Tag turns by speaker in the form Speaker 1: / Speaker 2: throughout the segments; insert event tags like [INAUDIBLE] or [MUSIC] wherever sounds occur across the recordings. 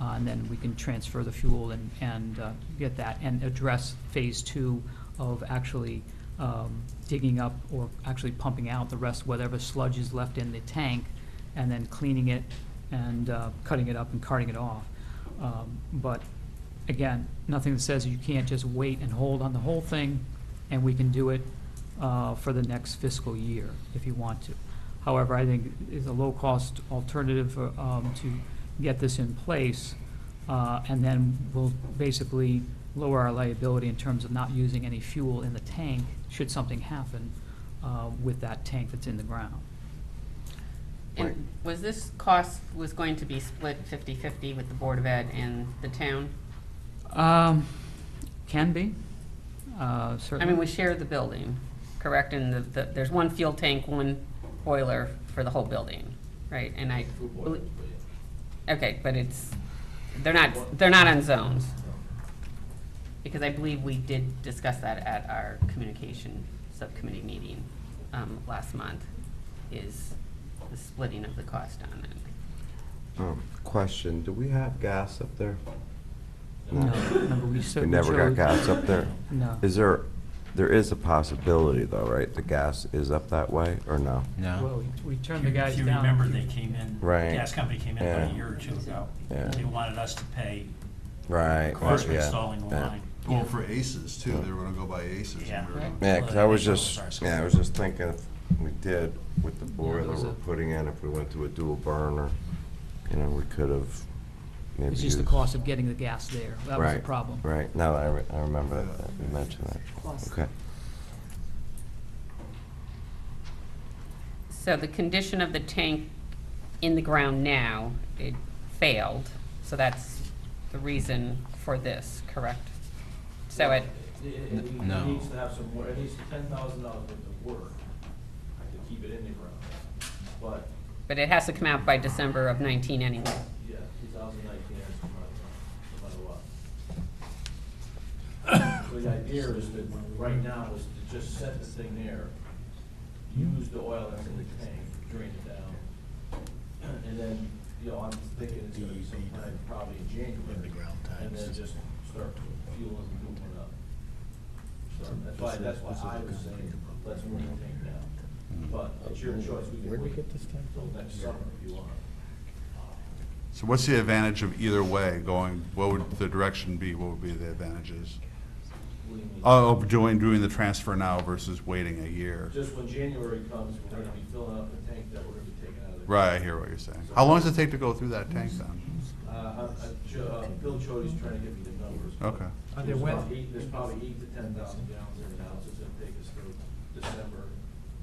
Speaker 1: uh, and then we can transfer the fuel and, and uh, get that, and address phase two of actually um, digging up or actually pumping out the rest, whatever sludge is left in the tank, and then cleaning it and uh, cutting it up and carting it off. Um, But again, nothing that says you can't just wait and hold on the whole thing, and we can do it uh, for the next fiscal year if you want to. However, I think it's a low-cost alternative uh, um, to get this in place, uh, and then we'll basically lower our liability in terms of not using any fuel in the tank should something happen uh, with that tank that's in the ground.
Speaker 2: And was this cost, was going to be split 50/50 with the Board of Ed and the town?
Speaker 1: Um, Can be, uh,
Speaker 2: I
Speaker 1: certainly.
Speaker 2: mean, we share the building, correct? And the- the, there's one fuel tank, one boiler for the whole building, right? And I,
Speaker 3: Food boil,
Speaker 2: belie-
Speaker 3: but yeah.
Speaker 2: okay, but it's, they're not, they're not on zones. Because I believe we did discuss that at our communication subcommittee meeting um, last month, is the splitting of the cost on it.
Speaker 4: Um, Question, do we have gas up there?
Speaker 1: No, remember, we
Speaker 4: We
Speaker 1: certainly
Speaker 4: never got
Speaker 1: chose-
Speaker 4: gas up there?
Speaker 1: [LAUGHS] No.
Speaker 4: Is there, there is a possibility though, right? The gas is up that way or no?
Speaker 1: Well,
Speaker 5: No.
Speaker 1: we- we turned
Speaker 6: If
Speaker 1: the
Speaker 6: you-
Speaker 1: guys
Speaker 6: If you
Speaker 1: down.
Speaker 6: remember, they came in, the
Speaker 4: Right.
Speaker 6: gas company came in about
Speaker 4: Yeah.
Speaker 6: a year or two ago.
Speaker 4: Yeah.
Speaker 6: They wanted us to pay
Speaker 4: Right.
Speaker 6: cost for
Speaker 4: yeah,
Speaker 6: installing the
Speaker 4: yeah.
Speaker 6: line.
Speaker 7: Well, for aces too, they were gonna go by aces.
Speaker 6: Yeah.
Speaker 7: and we were gonna-
Speaker 4: Yeah, 'cause I was
Speaker 6: Well,
Speaker 4: just,
Speaker 6: they told us
Speaker 4: yeah, I was just thinking if we did with the boiler
Speaker 1: there's
Speaker 4: we're
Speaker 1: a-
Speaker 4: putting in, if we went to a dual burner, you know, we could have maybe
Speaker 1: It's just the
Speaker 4: used-
Speaker 1: cost of getting the gas there. That was the
Speaker 4: Right,
Speaker 1: problem.
Speaker 4: Right, now that I, re- I remember that, that you mentioned that. Okay.
Speaker 2: So the condition of the tank in the ground now, it failed, so that's the reason for this, correct? So it,
Speaker 3: It- It, it
Speaker 5: No.
Speaker 3: needs to have some, wor- at least ten thousand dollars worth of work to keep it in the ground. But,
Speaker 2: but it has to come out by December of 19 anyway.
Speaker 3: yeah, two thousand nineteen, no matter what. So the idea is that, right now, is to just set the thing there, use the oil that's in the tank, drain it down. And then, you know, I'm thinking it's gonna be sometime probably in January.
Speaker 8: In the ground
Speaker 3: And then
Speaker 8: times.
Speaker 3: just start fueling, moving up. So that's why, that's why I was saying, let's move the tank now. But it's your choice, we can wait until next summer if you want.
Speaker 7: So what's the advantage of either way going, what would the direction be, what would be the advantages?
Speaker 3: What do you mean?
Speaker 7: Oh, of doing, doing the transfer now versus waiting a year?
Speaker 3: Just when January comes, we're gonna be filling up the tank that we're gonna be taking out of the.
Speaker 7: Right, I hear what you're saying. How long does it take to go through that tank then?
Speaker 3: Uh, I, I, Jo- uh, Bill Chody's trying to give me the numbers. but
Speaker 7: Okay.
Speaker 1: Are there
Speaker 3: there's
Speaker 1: wet-
Speaker 3: probably eight- There's probably eight to ten thousand gallons in the house, it's gonna take us through December,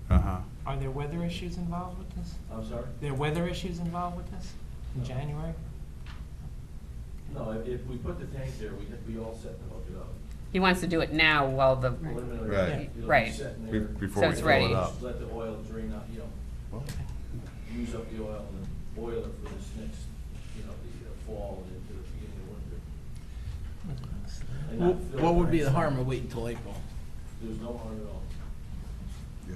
Speaker 7: Uh-huh.
Speaker 9: Are there weather issues involved with this?
Speaker 3: I'm sorry?
Speaker 9: There weather issues involved with this in January?
Speaker 3: No, if, if we put the tank there, we, we all set to hook it up.
Speaker 2: He wants to do it now while the,
Speaker 3: Preliminary,
Speaker 7: Right.
Speaker 3: it'll be
Speaker 2: Right.
Speaker 3: sitting
Speaker 7: Be-
Speaker 3: there.
Speaker 7: Before
Speaker 2: So
Speaker 7: we
Speaker 2: it's
Speaker 7: fill
Speaker 2: ready.
Speaker 7: it up.
Speaker 3: Just Let the oil drain out, you know, use up the oil and boil it for this next, you know, the uh, fall and into the beginning of winter. And not fill it
Speaker 8: What would be the
Speaker 3: right
Speaker 8: harm
Speaker 3: now.
Speaker 8: of waiting till April?
Speaker 3: There's no harm at all.
Speaker 7: Yeah.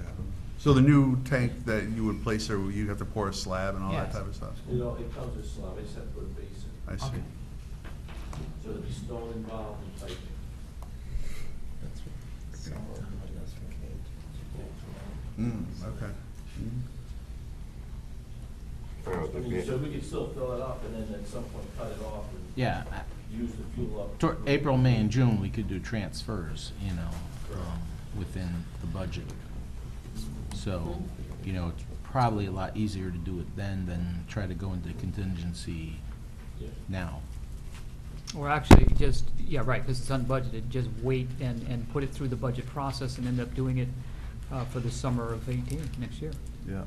Speaker 7: So the new tank that you would place there, you'd have to pour a slab and all that
Speaker 9: Yes.
Speaker 7: type of stuff?
Speaker 3: You know, it comes with slab, it's set for a basin,
Speaker 7: I see.
Speaker 9: Okay.
Speaker 3: so there'll be stone involved in piping.
Speaker 7: Mm, okay.
Speaker 3: I mean, so we could still fill it up and then at some point cut it off and
Speaker 8: Yeah, I-
Speaker 3: use the fuel up.
Speaker 8: toward April, May, and June, we could do transfers, you know, um, within the budget. So, you know, it's probably a lot easier to do it then than try to go into contingency
Speaker 3: Yeah.
Speaker 8: now.
Speaker 1: Or actually, just, yeah, right, because it's unbudgeted, just wait and, and put it through the budget process and end up doing it uh, for the summer of 18, next year.
Speaker 7: Yeah.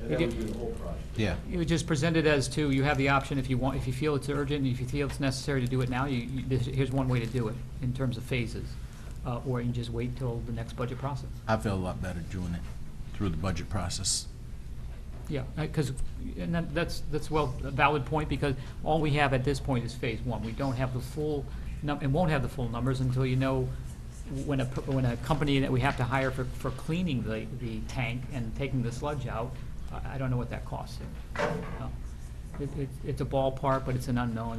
Speaker 3: And then we do the whole project.
Speaker 8: Yeah.
Speaker 1: You would just present it as to, you have the option if you want, if you feel it's urgent, if you feel it's necessary to do it now, you, you- this- here's one way to do it in terms of phases. Uh, Or you just wait till the next budget process.
Speaker 8: I feel a lot better doing it through the budget process.
Speaker 1: Yeah, because, and that- that's, that's well, a valid point, because all we have at this point is phase one. We don't have the full, num- and won't have the full numbers until you know when a, p- when a company that we have to hire for, for cleaning the, the tank and taking the sludge out, I I don't know what that costs. Uh, it- it- It's a ballpark, but it's an unknown.